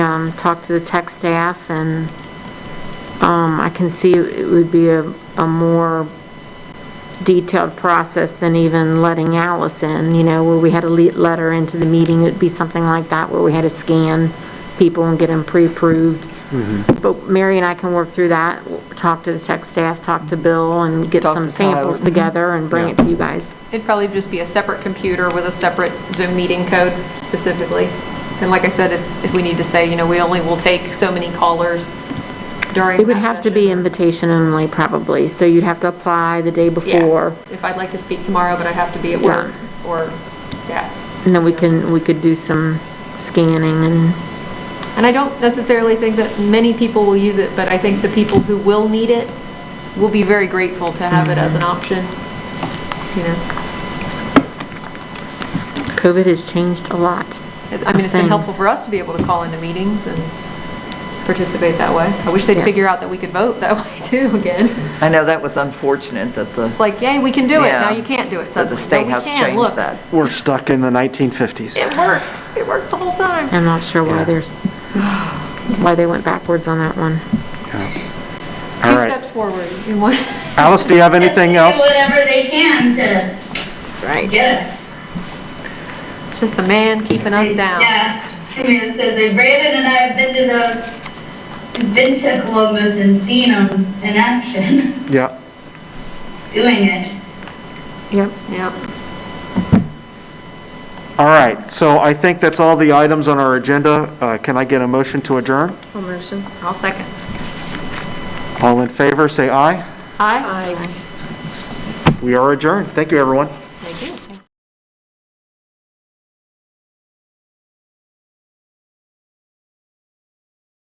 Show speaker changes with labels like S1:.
S1: um, talked to the tech staff, and um, I can see it would be a, a more detailed process than even letting Alice in, you know, where we had a le- letter into the meeting, it'd be something like that, where we had to scan people and get them pre-approved. But Mary and I can work through that, w- talk to the tech staff, talk to Bill, and get
S2: Talk
S1: some
S2: to Tyler.
S1: samples together and bring it to you guys.
S3: It'd probably just be a separate computer with a separate Zoom meeting code specifically. And like I said, if, if we need to say, you know, we only will take so many callers during
S1: It would
S3: that
S1: have to
S3: session.
S1: be invitation only, probably, so you'd have to apply the day
S3: Yeah.
S1: before,
S3: If I'd like to speak tomorrow, but I have to be at work, or, yeah.
S1: and then we can, we could do some scanning and,
S3: And I don't necessarily think that many people will use it, but I think the people who will need it will be very grateful to have it as an option, you know.
S1: COVID has changed a lot.
S3: It- I mean, it's been
S1: Thanks.
S3: helpful for us to be able to call into meetings and participate that way. I wish they'd
S1: Yes.
S3: figure out that we could vote that way too again.
S2: I know that was unfortunate that the.
S3: It's like, yay, we can do it, now
S2: Yeah.
S3: you can't do it
S2: That
S3: suddenly.
S2: the state
S3: No, we
S2: has
S3: can,
S2: changed
S3: look.
S2: that.
S4: We're stuck in the 1950s.
S3: It worked, it worked the whole time.
S1: I'm not sure why
S4: Yeah.
S1: there's, why they went backwards on that one.
S4: All
S3: Two
S4: right.
S3: steps forward in one.
S4: Alice, do you have anything
S5: They do
S4: else?
S5: Whatever they can to
S3: That's right.
S5: get us.
S3: It's just the man keeping us down.
S5: Yeah, I mean, it's because Brandon and I have been to those, been to Columbus and seen them in action,
S4: Yeah.
S5: doing it.
S1: Yep.
S3: Yep.
S4: All right. So I think that's all the items on our agenda. Uh, Can I get a motion to adjourn?
S3: I'll motion. I'll second.
S4: All in favor, say aye.
S3: Aye.
S4: We are adjourned. Thank you, everyone.